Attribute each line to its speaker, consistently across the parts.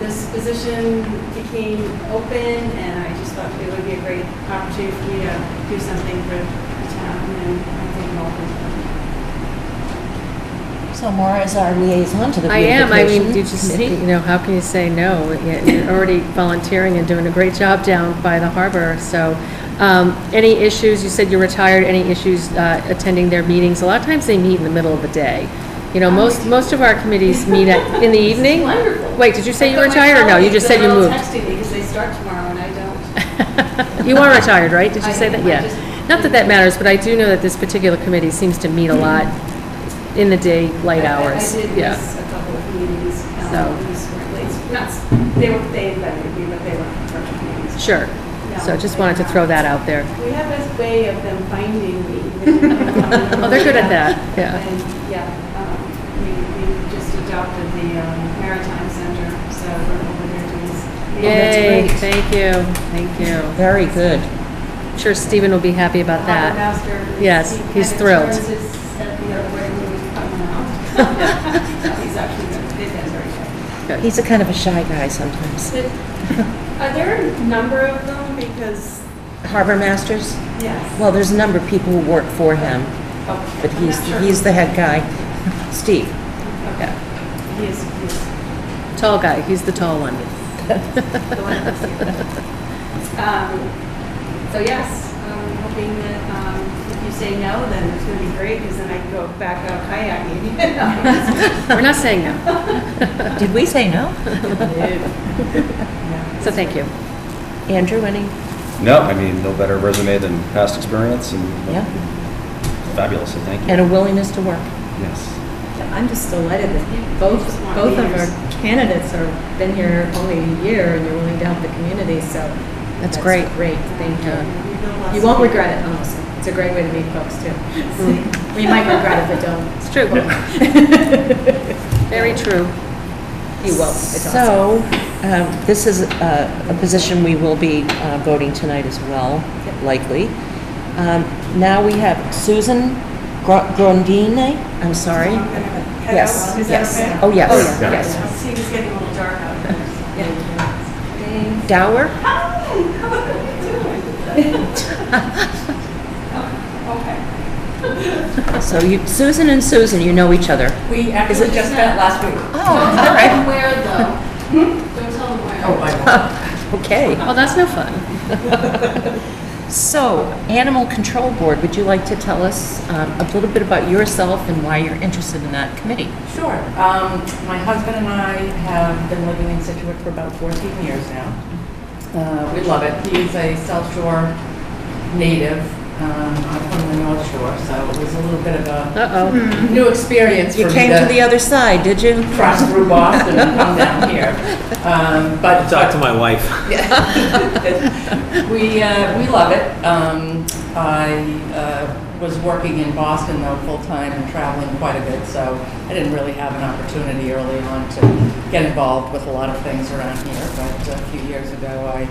Speaker 1: this position became open, and I just thought it would be a great opportunity for me to do something for the town, and I think I'm open.
Speaker 2: So Maura is our liaison to the
Speaker 3: I am, I mean, you
Speaker 2: beautification
Speaker 3: just, you
Speaker 2: committee.
Speaker 3: know, how can you say no? Yeah, You're already volunteering and doing a great job down by the harbor, so. um, Any issues, you said you're retired, any issues uh, attending their meetings? A lot of times they meet in the middle of the day. You know, most, most of our committees meet at- in the evening.
Speaker 1: Wonderful.
Speaker 3: Wait, did you say
Speaker 1: I
Speaker 3: you
Speaker 1: thought my
Speaker 3: retired or no? You
Speaker 1: colleagues
Speaker 3: just said you
Speaker 1: that are all
Speaker 3: moved?
Speaker 1: Texting me because they start tomorrow and I don't.
Speaker 3: You are retired, right? Did
Speaker 1: I
Speaker 3: you say that?
Speaker 1: am. I
Speaker 3: Yeah.
Speaker 1: just-
Speaker 3: Not that that matters, but I do know that this particular committee seems to meet a lot in the day, light
Speaker 1: I- I-
Speaker 3: hours.
Speaker 1: I did
Speaker 3: Yeah.
Speaker 1: miss a couple of meetings,
Speaker 3: So.
Speaker 1: um, these weren't late, not, s- they were, they invited me, but they weren't virtual meetings.
Speaker 3: Sure. So just wanted to throw that out there.
Speaker 1: We have this way of them finding me.
Speaker 3: Oh, they're good at that, yeah.
Speaker 1: And, yeah, um, we, we just adopted the um, Maritime Center, so we're over there doing. s-
Speaker 3: Yay,
Speaker 1: meetings.
Speaker 3: thank you, thank you.
Speaker 2: Very good.
Speaker 3: I'm Sure Stephen will be happy about
Speaker 1: Harbor
Speaker 3: that.
Speaker 1: Master. is-
Speaker 3: Yes,
Speaker 1: he
Speaker 3: he's
Speaker 1: kind of
Speaker 3: thrilled.
Speaker 1: turns his head the other way when we come out. He's actually, good. His head's very good.
Speaker 3: Good.
Speaker 2: He's a kind of a shy guy sometimes.
Speaker 1: Are there a number of them? Because,
Speaker 2: Harbor Masters,
Speaker 1: yes.
Speaker 2: well, there's a number of people who work for him,
Speaker 1: Oh,
Speaker 2: but
Speaker 1: I'm
Speaker 2: he's,
Speaker 1: not sure.
Speaker 2: he's the head guy. Steve,
Speaker 1: Okay. He is, he is
Speaker 3: Tall guy, he's the tall one.
Speaker 1: the one that's here. Um, So yes, I'm hoping that um, if you say no, then it's going to be great because then I can go back out kayaking.
Speaker 3: We're not saying no,
Speaker 2: did we say no?
Speaker 3: so thank you.
Speaker 2: Andrew, any?
Speaker 4: No, I mean, no better resume than past experience and
Speaker 2: Yeah.
Speaker 4: fabulous, so thank you.
Speaker 2: And a willingness to work.
Speaker 4: Yes.
Speaker 5: I'm just delighted that both,
Speaker 1: Just want
Speaker 5: both of
Speaker 1: leaders.
Speaker 5: our candidates are, been here only a year and you're willing to help the community, so.
Speaker 3: That's great.
Speaker 5: Great, thank you. uh, You won't regret it, honestly. It's a great way to meet folks too. We might regret it, but don't.
Speaker 3: It's true. Very true.
Speaker 5: You will, it's awesome.
Speaker 2: So, um, this is a a position we will be uh, voting tonight as well, likely. Um, Now we have Susan Gro- Grondine, I'm sorry. Yes, yes. Oh, yes.
Speaker 1: Oh,
Speaker 2: Yeah.
Speaker 1: yes. I See, it's getting a little dark out there. Yeah.
Speaker 2: Dower?
Speaker 1: How are you doing? Oh, Okay.
Speaker 2: So you, Susan and Susan, you know each other.
Speaker 6: We actually just met last week.
Speaker 2: Oh, all right.
Speaker 1: Where though? Don't tell them where.
Speaker 6: Oh, I
Speaker 2: Okay.
Speaker 3: Oh, that's no fun.
Speaker 2: So, Animal Control Board, would you like to tell us um, a little bit about yourself and why you're interested in that committee?
Speaker 6: know. Sure. Um, my husband and I have been living in Situate for about 14 years now. Uh, we love it. He's a South Shore native. Um, I'm from the North Shore, so it was a little bit of a
Speaker 3: Uh-oh.
Speaker 6: new experience for
Speaker 2: Hmm. You
Speaker 6: me
Speaker 2: came to the other side, did you?
Speaker 6: cross through Boston and come down here. Um, but
Speaker 7: Talk to my wife.
Speaker 6: we, uh, we love it. Um, I uh, was working in Boston though, full-time and traveling quite a bit, so I didn't really have an opportunity early on to get involved with a lot of things around here. But a few years ago, I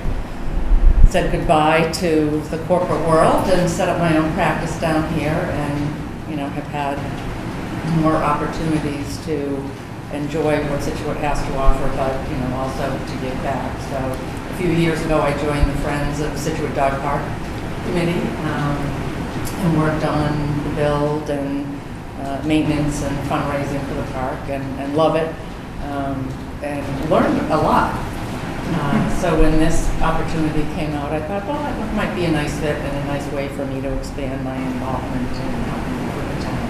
Speaker 6: said goodbye to the corporate world and set up my own practice down here and, you know, have had more opportunities to enjoy what Situate has to offer, but, you know, also to give back. So a few years ago, I joined the Friends of Situate Dog Park Committee um, and worked on the build and uh, maintenance and fundraising for the park and and love it um, and learned a lot. Uh, So when this opportunity came out, I thought, well, it might be a nice fit and a nice way for me to expand my involvement in helping with the town.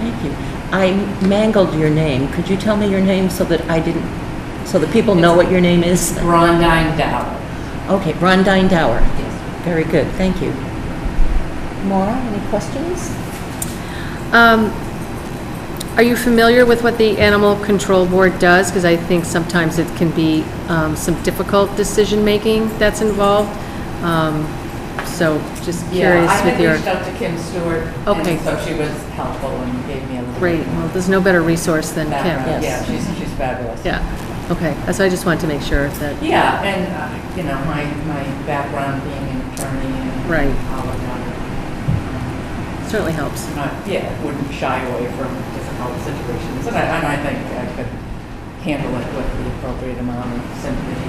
Speaker 2: Thank you. I mangled your name. Could you tell me your name so that I didn't, so that people know what your name is?
Speaker 6: Brondine Dow.
Speaker 2: Okay, Rondine Dower.
Speaker 6: Yes.
Speaker 2: Very good, thank you. Maura, any questions?
Speaker 3: Um, Are you familiar with what the Animal Control Board does? Because I think sometimes it can be um, some difficult decision-making that's involved. Um, So just curious
Speaker 6: I
Speaker 3: with
Speaker 6: had
Speaker 3: your...
Speaker 6: reached out to Kim Stewart. and
Speaker 3: Okay.
Speaker 6: So she was helpful and gave me a little.
Speaker 3: Great,
Speaker 6: bit more
Speaker 3: well, there's no better resource than Kim.
Speaker 6: background. Yeah,
Speaker 2: Yes.
Speaker 6: she's, she's fabulous.
Speaker 3: Yeah, okay, so I just wanted to make sure that,
Speaker 6: Yeah, and, uh, you know, my, my background being an attorney and.
Speaker 3: Right.
Speaker 6: all of that,
Speaker 3: certainly helps.
Speaker 6: um, Not, yeah, wouldn't shy away from difficult situations. And I, and I think I could handle it with the appropriate amount of sympathy